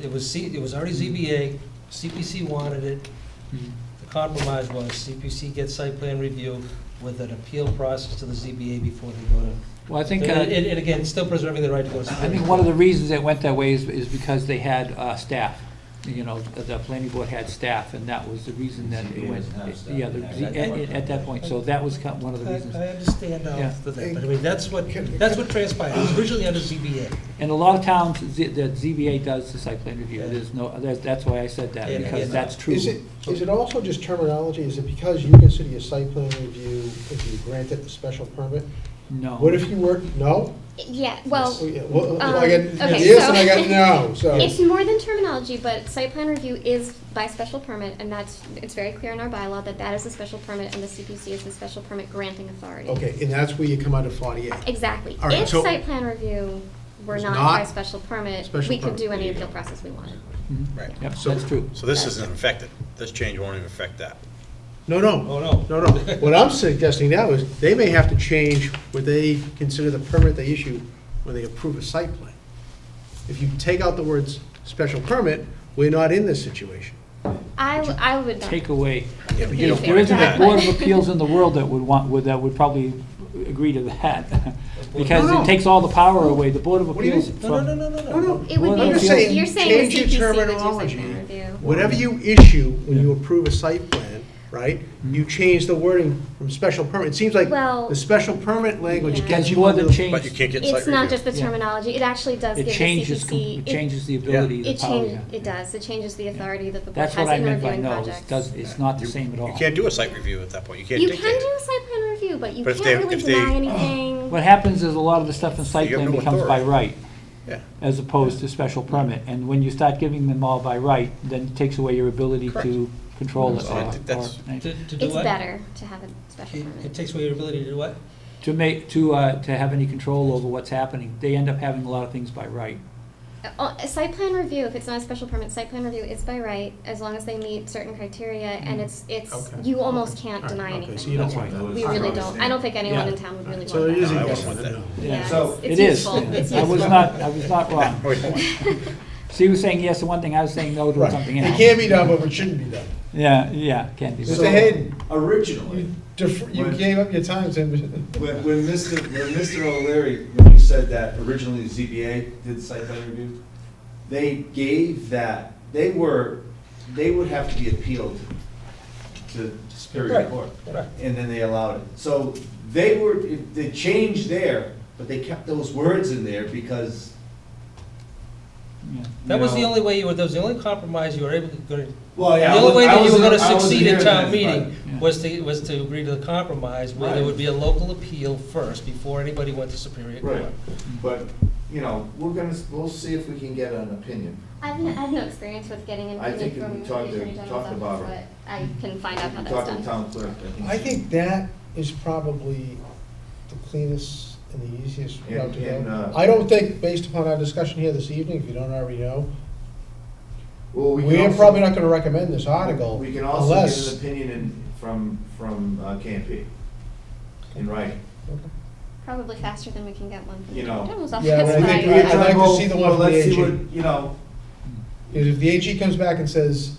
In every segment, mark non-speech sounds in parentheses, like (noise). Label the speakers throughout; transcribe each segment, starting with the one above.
Speaker 1: It was, C- it was already ZBA, CPC wanted it.
Speaker 2: Mm-hmm.
Speaker 1: The compromise was CPC gets site plan review with an appeal process to the ZBA before they go to.
Speaker 2: Well, I think,
Speaker 1: And,
Speaker 2: uh,
Speaker 1: and- and again, still preserving the right to go to.
Speaker 2: I think one of the reasons it went that way is, is because they had uh, staff. You know, the the planning board had staff, and that was the reason that it
Speaker 3: ZBA
Speaker 2: went.
Speaker 3: doesn't have staff.
Speaker 2: Yeah, the-
Speaker 3: At that
Speaker 2: at
Speaker 3: point.
Speaker 2: at that point, so that was kind of one of the reasons.
Speaker 1: I I understand all
Speaker 2: Yeah.
Speaker 1: of that, but I mean, that's what, that's what transpired, It was originally under ZBA.
Speaker 2: In a lot of towns, Z- the ZBA does the site plan review, there's no, that's, that's why I said that,
Speaker 1: Yeah,
Speaker 2: because
Speaker 1: yeah.
Speaker 2: that's true.
Speaker 4: Is it, is it also just terminology? Is it because you consider your site plan review if you grant it the special permit?
Speaker 2: No.
Speaker 4: What if you were, no?
Speaker 5: Yeah, well,
Speaker 4: Oh, yeah, well,
Speaker 5: um,
Speaker 4: I got
Speaker 5: okay,
Speaker 4: yes and I
Speaker 5: so-
Speaker 4: got
Speaker 5: (laughs)
Speaker 4: no,
Speaker 5: it's
Speaker 4: so.
Speaker 5: more than terminology, but site plan review is by special permit, and that's, it's very clear in our bylaw that that is a special permit, and the CPC is the special permit granting authority.
Speaker 4: Okay, and that's where you come out of forty-eight.
Speaker 5: Exactly.
Speaker 4: All right,
Speaker 5: If
Speaker 4: so-
Speaker 5: site plan review were
Speaker 4: It's
Speaker 5: not
Speaker 4: not
Speaker 5: by special permit,
Speaker 4: special
Speaker 5: we could
Speaker 4: permit.
Speaker 5: do any appeal process we wanted.
Speaker 2: Mhm.
Speaker 4: Right.
Speaker 2: Yep,
Speaker 4: So-
Speaker 2: that's true.
Speaker 6: So this isn't affected, this change won't even affect that.
Speaker 4: No,
Speaker 1: Oh,
Speaker 4: no,
Speaker 1: no.
Speaker 4: no, no. What I'm suggesting now is they may have to change what they consider the permit they issue when they approve a site plan. If you take out the words special permit, we're not in this situation.
Speaker 5: I, w- I would not.
Speaker 2: Take away,
Speaker 6: Yeah, but you don't
Speaker 2: there
Speaker 6: wanna
Speaker 2: isn't
Speaker 6: do
Speaker 2: a
Speaker 6: that.
Speaker 2: board of appeals in the world that would want, would, that would probably agree to that, (laughs) because
Speaker 4: No,
Speaker 2: it
Speaker 4: no.
Speaker 2: takes all the power away, the board of
Speaker 4: What do you
Speaker 2: appeals.
Speaker 4: mean?
Speaker 1: No,
Speaker 2: from-
Speaker 1: no, no, no, no,
Speaker 4: No,
Speaker 1: no.
Speaker 4: no.
Speaker 5: It would
Speaker 2: Well,
Speaker 5: be,
Speaker 2: I'm
Speaker 5: the-
Speaker 2: saying
Speaker 5: you're saying
Speaker 4: change
Speaker 5: the
Speaker 4: your
Speaker 5: CPC would do site
Speaker 4: terminology.
Speaker 5: plan review.
Speaker 4: Whatever you issue when you approve a site plan, right, you change the wording from special permit. It seems like
Speaker 5: Well-
Speaker 4: the special permit language
Speaker 5: Yeah.
Speaker 4: gets
Speaker 2: There's
Speaker 4: you
Speaker 2: more
Speaker 4: under
Speaker 2: than
Speaker 4: the.
Speaker 6: But you
Speaker 2: change,
Speaker 6: can't get
Speaker 5: It's
Speaker 6: site
Speaker 5: not
Speaker 6: review.
Speaker 5: just the
Speaker 2: Yeah.
Speaker 5: terminology, it actually does give
Speaker 2: it
Speaker 5: the
Speaker 2: changes, com-
Speaker 5: CPC.
Speaker 2: it changes the ability, the
Speaker 5: It
Speaker 2: power.
Speaker 5: changes,
Speaker 2: yeah.
Speaker 5: it does, it changes the authority that the board
Speaker 2: That's
Speaker 5: has
Speaker 2: what I
Speaker 5: in
Speaker 2: meant by
Speaker 5: reviewing
Speaker 2: no,
Speaker 5: projects.
Speaker 2: it does, it's not the same at all.
Speaker 6: You can't do a site review at that point, you can't
Speaker 5: You
Speaker 6: dictate
Speaker 5: can do
Speaker 6: it.
Speaker 5: a site plan review, but you
Speaker 6: But
Speaker 5: can't
Speaker 6: if they-
Speaker 5: really
Speaker 6: if they-
Speaker 5: deny anything.
Speaker 2: What happens is a lot of the stuff in site
Speaker 6: You have
Speaker 2: plan
Speaker 6: no
Speaker 2: becomes by
Speaker 6: authority.
Speaker 2: right.
Speaker 6: Yeah.
Speaker 2: As opposed to special permit, and when you start giving them all by right, then it takes away your ability to control it.
Speaker 6: So I
Speaker 2: or-
Speaker 6: think that's-
Speaker 2: or-
Speaker 1: To, to do
Speaker 5: It's
Speaker 1: what?
Speaker 5: better to have a special
Speaker 1: It it
Speaker 5: permit.
Speaker 1: takes away your ability to do what?
Speaker 2: To make, to, uh, to have any control over what's happening, they end up having a lot of things by right.
Speaker 5: Uh, oh, A site plan review, if it's not a special permit, site plan review is by right, as long as they meet certain criteria, and it's, it's,
Speaker 4: Mm. Okay.
Speaker 5: you almost can't
Speaker 4: All right,
Speaker 5: deny
Speaker 4: okay, so
Speaker 5: anything.
Speaker 4: you don't
Speaker 2: That's
Speaker 4: want
Speaker 2: right.
Speaker 4: that.
Speaker 5: We really don't, I don't think anyone
Speaker 2: Yeah.
Speaker 5: in town would really want that.
Speaker 4: So it is
Speaker 6: No, I
Speaker 4: yes
Speaker 6: wouldn't want
Speaker 4: and
Speaker 6: that.
Speaker 4: no.
Speaker 2: Yeah.
Speaker 5: Yeah,
Speaker 1: So-
Speaker 5: it's-
Speaker 2: It
Speaker 5: it's
Speaker 2: is.
Speaker 5: useful, it's
Speaker 2: I was
Speaker 5: useful.
Speaker 2: not, I was not wrong.
Speaker 6: No, we don't want it.
Speaker 2: So you were saying yes to one thing, I was saying no to
Speaker 4: Right.
Speaker 2: something
Speaker 4: It
Speaker 2: else.
Speaker 4: can be done, but it shouldn't be done.
Speaker 2: Yeah, yeah, can't be.
Speaker 4: Mr. Hayden,
Speaker 3: Originally,
Speaker 4: you def- you
Speaker 3: When-
Speaker 4: gave up your time, Tim. (laughs)
Speaker 3: when, when Mr., when Mr. O'Leary, when you said that originally the ZBA did the site plan review, they gave that, they were, they would have to be appealed to Superior
Speaker 1: Right,
Speaker 3: Court.
Speaker 1: right.
Speaker 3: And then they allowed it. So they were, they changed there, but they kept those words in there because,
Speaker 2: Yeah.
Speaker 1: That was the
Speaker 3: No.
Speaker 1: only way you were, that was the only compromise you were able to, gonna-
Speaker 3: well, yeah.
Speaker 1: The
Speaker 3: I
Speaker 1: only way
Speaker 3: wa- I
Speaker 1: that you were
Speaker 3: wasn't-
Speaker 1: gonna
Speaker 3: I wasn't
Speaker 1: succeed at
Speaker 3: here
Speaker 1: town
Speaker 3: then,
Speaker 1: meeting
Speaker 2: Yeah.
Speaker 1: was to, was to agree to the compromise, where there
Speaker 3: Right.
Speaker 1: would be a local appeal first, before anybody went to Superior
Speaker 3: Right.
Speaker 1: Court.
Speaker 7: But, you know, we're gonna, we'll see if we can get an opinion.
Speaker 5: I've no, I have no experience with getting an
Speaker 7: I
Speaker 5: opinion
Speaker 7: think if
Speaker 5: from
Speaker 7: we
Speaker 5: the
Speaker 7: talk to-
Speaker 5: Attorney
Speaker 7: talk to
Speaker 5: General's office,
Speaker 7: Barbara.
Speaker 5: but I can find out how
Speaker 7: We
Speaker 5: that's done.
Speaker 7: Talk to the town clerk.
Speaker 4: I think that is probably the cleanest and the easiest route to
Speaker 7: And- and,
Speaker 4: go.
Speaker 7: uh,
Speaker 4: I don't think, based upon our discussion here this evening, if you don't already know,
Speaker 7: Well, we can
Speaker 4: we're
Speaker 7: also-
Speaker 4: probably not gonna recommend this article
Speaker 7: We can also get
Speaker 4: unless.
Speaker 7: an opinion in, from, from uh, KMP, in writing.
Speaker 4: Okay.
Speaker 5: Probably faster than we can get one from the
Speaker 7: You know.
Speaker 5: Attorney General's office.
Speaker 4: Yeah, but I
Speaker 5: but
Speaker 4: think
Speaker 5: I-
Speaker 4: we- I'd like to
Speaker 7: Well,
Speaker 4: see the one
Speaker 7: well,
Speaker 4: from the
Speaker 7: let's see
Speaker 4: AG.
Speaker 7: what, You know,
Speaker 4: Because if the AG comes back and says,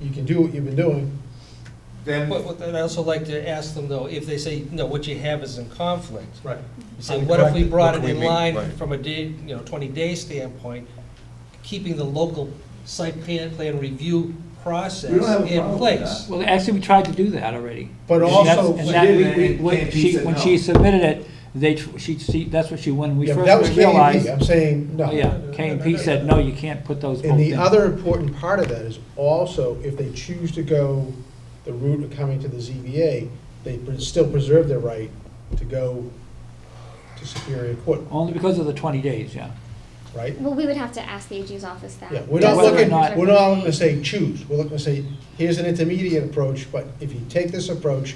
Speaker 4: you can do what you've been doing,
Speaker 7: then,
Speaker 1: But, but I'd also like to ask them though, if they say, no, what you have is in conflict,
Speaker 4: right,
Speaker 1: you say, what if we
Speaker 4: Correct.
Speaker 1: brought
Speaker 6: What
Speaker 1: it
Speaker 6: do we
Speaker 1: in
Speaker 6: mean?
Speaker 1: line
Speaker 6: Right.
Speaker 1: from a day, you know, twenty-day standpoint, keeping the local site plan, plan review process
Speaker 7: We don't have a
Speaker 1: in
Speaker 7: problem with
Speaker 1: place?
Speaker 2: Well, actually, we tried to do that already.
Speaker 4: but
Speaker 2: And
Speaker 4: also,
Speaker 2: that's-
Speaker 7: she
Speaker 2: And that,
Speaker 7: did,
Speaker 2: we-
Speaker 7: and
Speaker 2: when
Speaker 7: KMP
Speaker 2: she,
Speaker 7: said
Speaker 2: when
Speaker 7: no.
Speaker 2: she submitted it, they, tr- she, she, that's what she, when we
Speaker 4: Yeah, but that was
Speaker 2: first realized.
Speaker 4: KMP, I'm saying, no.
Speaker 2: Oh, yeah, K and P said, no, you can't put those both
Speaker 4: And the
Speaker 2: in."
Speaker 4: other important part of that is also, if they choose to go the route of coming to the ZBA, they pre- still preserve their right to go to Superior Court,
Speaker 2: Only because of the twenty days, yeah.
Speaker 4: right?
Speaker 5: Well, we would have to ask the AG's office that.
Speaker 4: Yeah, we're
Speaker 2: Yeah,
Speaker 4: not
Speaker 2: whether or
Speaker 4: looking,
Speaker 2: not-
Speaker 4: we're not looking to say choose, we're looking to say, here's an intermediate approach, but if you take this approach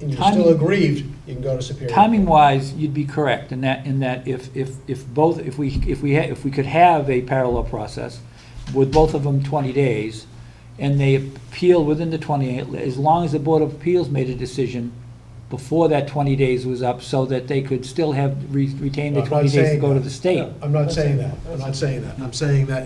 Speaker 4: and you're still
Speaker 2: Timing-
Speaker 4: aggrieved, you can go to Superior. Court.
Speaker 2: Timing wise, you'd be correct in that, in that if, if, if both, if we, if we, ha- if we could have a parallel process with both of them twenty days, and they appeal within the twenty, as long as the Board of Appeals made a decision before that twenty days was up, so that they could still have, re- retained the
Speaker 4: I'm not
Speaker 2: twenty days to
Speaker 4: saying
Speaker 2: go to
Speaker 4: that.
Speaker 2: the state.
Speaker 4: I'm not saying that, I'm not saying that, I'm saying that